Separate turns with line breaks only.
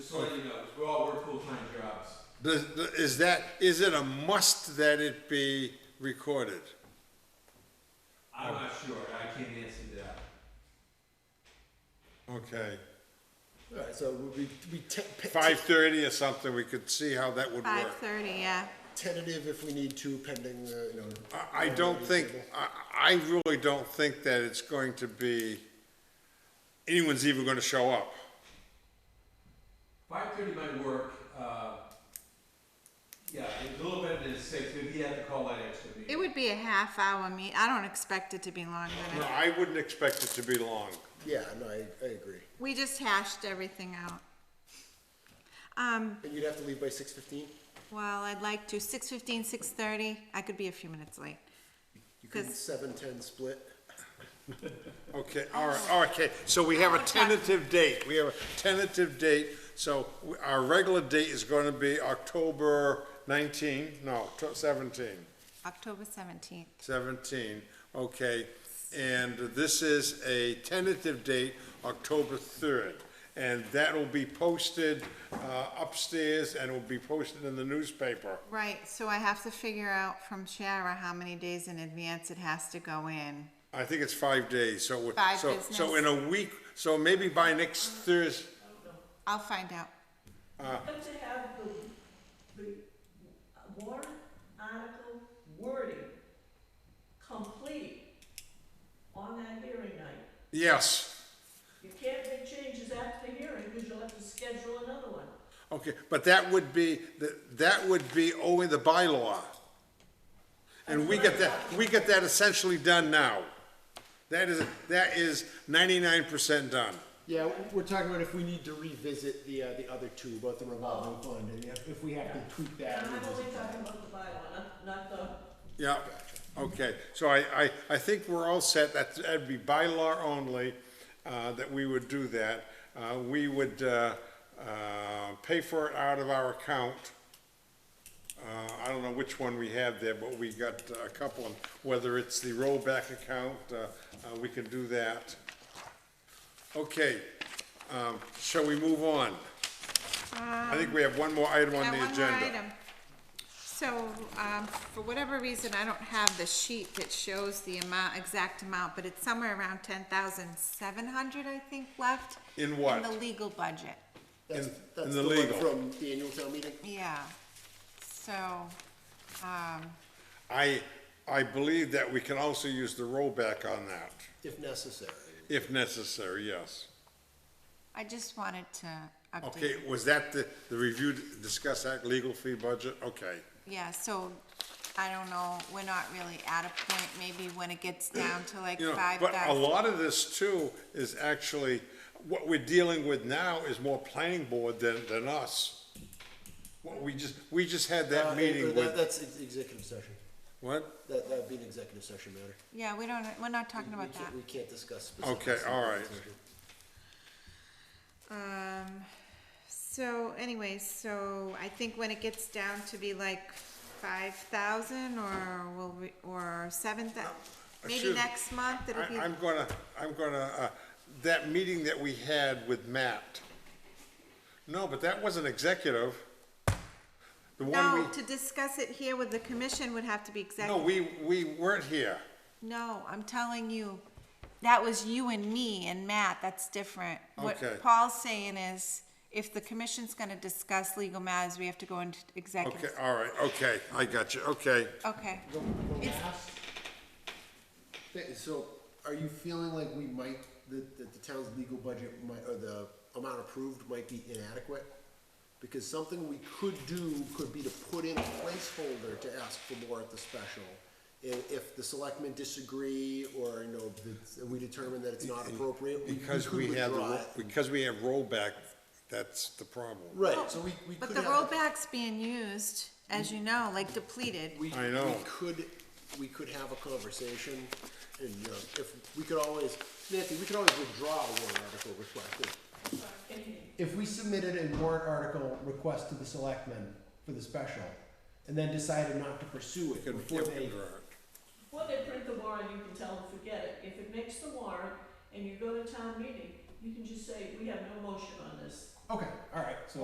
Just to let you know, 'cause we're all, we're full-time jobs.
Does, is that, is it a must that it be recorded?
I'm not sure, I can't answer that.
Okay,
Alright, so we'll be, be te- pe-
five thirty or something, we could see how that would
Five
work.
thirty, yeah.
tentative if we need to pending, uh, you know. Uh,
I, I don't think, I, I really don't think that it's going to be, anyone's even gonna show up.
Five thirty might work, uh, yeah, it's a little better than six, maybe you have to call that extra
It
meeting.
would be a half hour meet, I don't expect it to be longer than
No,
that.
I wouldn't expect it to be long.
Yeah, no, I, I agree.
We just hashed everything out. Um,
And you'd have to leave by six fifteen?
well, I'd like to, six fifteen, six thirty, I could be a few minutes late.
You could
'Cause-
seven ten split.
Okay, all right, all right, okay, so we have a tentative date, we have a tentative date, so we- our regular date is gonna be October nineteen, no, tw- seventeen.
October seventeenth.
17, okay. And this is a tentative date, October 3rd. And that will be posted uh, upstairs and will be posted in the newspaper.
Right, so I have to figure out from Shara how many days in advance it has to go in.
I think it's five days, so. we-
Five
so- So
business.
in a week, so maybe by next Thursday,
I'll find out.
Don't you have the, the warrant article wording complete on that hearing night?
yes.
You can't make changes after the hearing, because you'll have to schedule another one.
Okay, but that would be, that- that would be only the bylaw. And we get that, we get that essentially done now. That is, that is 99% done.
Yeah, we're talking about if we need to revisit the, uh, the other two, both the revolving fund and if, if we have to tweak that.
And I'm
revisit
only
that.
talking about the bylaw, not, not the,
Yeah, okay, so I, I, I think we're all set, That's- that'd be by law only, uh, that we would do that. Uh, we would, uh, uh, pay for it out of our account. Uh, I don't know which one we have there, but we got a couple, of- whether it's the rollback account, uh, uh, we can do that. Okay, um, shall we move on? I think we have one more item on
Now,
the
Um, one more
agenda.
item. So, um, for whatever reason, I don't have the sheet that shows the amount, exact amount, but it's somewhere around ten thousand seven hundred, I think, left.
In what?
In the legal budget,
In-
That's,
in
that's
the
the one
legal.
from the annual town meeting?
yeah. So,
I, I believe that we can also use the rollback on that,
If necessary.
if necessary, yes.
I just wanted to
Okay,
update.
was that the, the review, discuss that legal fee budget? Okay,
Yeah, so, I don't know, we're not really at a point, maybe when it gets down to like
you know,
five
but a
thousand.
lot of this too is actually, what we're dealing with now is more planning board than, than us. What, we just, we just had
Uh,
that
or
meeting
that-
with,
That's ex- executive session.
what?
That, that'd be an executive session matter.
Yeah, we don't, we're not talking
We
about that.
can't, we can't discuss specifics.
Okay, all
in
right.
executive session.
Um, so anyways, so I think when it gets down to be like five thousand or will we, or seven thou- maybe
Excuse me.
next month it'll
I,
be,
I'm gonna, I'm gonna, uh, that meeting that we had with Matt. No, but that wasn't executive. The one we.
no, to discuss it here with the commission would have to be
No,
executive.
we, we weren't here.
No, I'm telling you, that was you and me and Matt, that's different.
Okay.
What Paul's saying is, if the commission's gonna discuss legal matters, we have to go into
Okay,
executive.
all right, okay, I got you, okay.
Okay,
The, the
It's-
last thing, so are you feeling like we might, that, that the town's legal budget might, or the amount approved might be inadequate? Because something we could do could be to put in a placeholder to ask for more at the special. And if the selectmen disagree, or, you know, that we determine that it's not appropriate, we we
Because
could
we have, the
withdraw
ro-
it.
because we have rollback, that's the problem.
Right, so we, we could
but
have.
the rollback's being used, as you know, like depleted.
We,
I know.
We could, we could have a conversation, and, you know, if, we could always, Nancy, we could always withdraw a warrant article request. If-
if we submitted a warrant article request to the selectmen for the special, and then decided not to pursue it
Could-
before
yeah,
they,
right.
when they print the warrant, you can tell them, forget it. If it makes the warrant and you go to town meeting, you can just say, we have no motion on this.
okay, all right, so